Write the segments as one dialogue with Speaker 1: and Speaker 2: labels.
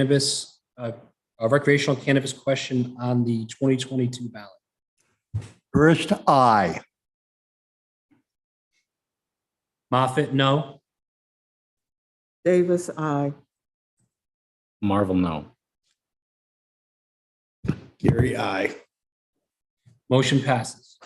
Speaker 1: cannabis, uh, a recreational cannabis question on the 2022 ballot?
Speaker 2: First, I.
Speaker 1: Moffett, no.
Speaker 3: Davis, I.
Speaker 4: Marvel, no.
Speaker 5: Gary, I.
Speaker 1: Motion passes.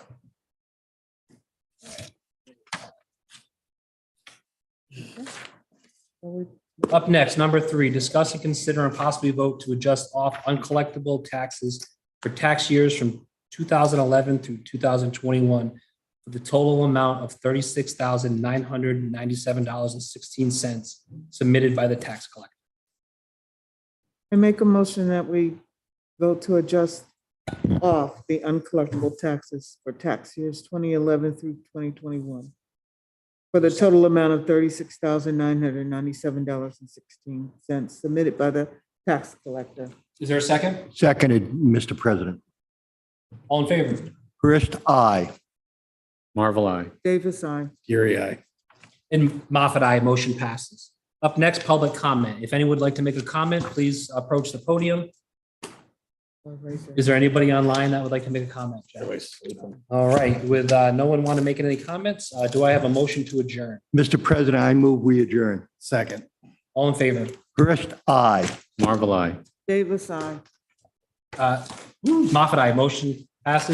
Speaker 1: Up next, number three, discuss and consider and possibly vote to adjust off uncollectible taxes for tax years from 2011 through 2021 for the total amount of $36,997.16 submitted by the tax collector.
Speaker 3: I make a motion that we vote to adjust off the uncollectible taxes for tax years 2011 through 2021 for the total amount of $36,997.16 submitted by the tax collector.
Speaker 1: Is there a second?
Speaker 2: Seconded, Mr. President.
Speaker 1: All in favor?
Speaker 2: First, I.
Speaker 4: Marvel, I.
Speaker 3: Davis, I.
Speaker 5: Gary, I.
Speaker 1: And Moffat, I motion passes. Up next, public comment. If anyone would like to make a comment, please approach the podium. Is there anybody online that would like to make a comment? Jack? All right, with uh, no one want to make any comments, uh, do I have a motion to adjourn?
Speaker 2: Mr. President, I move we adjourn.
Speaker 5: Second.
Speaker 1: All in favor?
Speaker 2: First, I.
Speaker 4: Marvel, I.
Speaker 3: Davis, I.
Speaker 1: Uh, Moffat, I motion passes.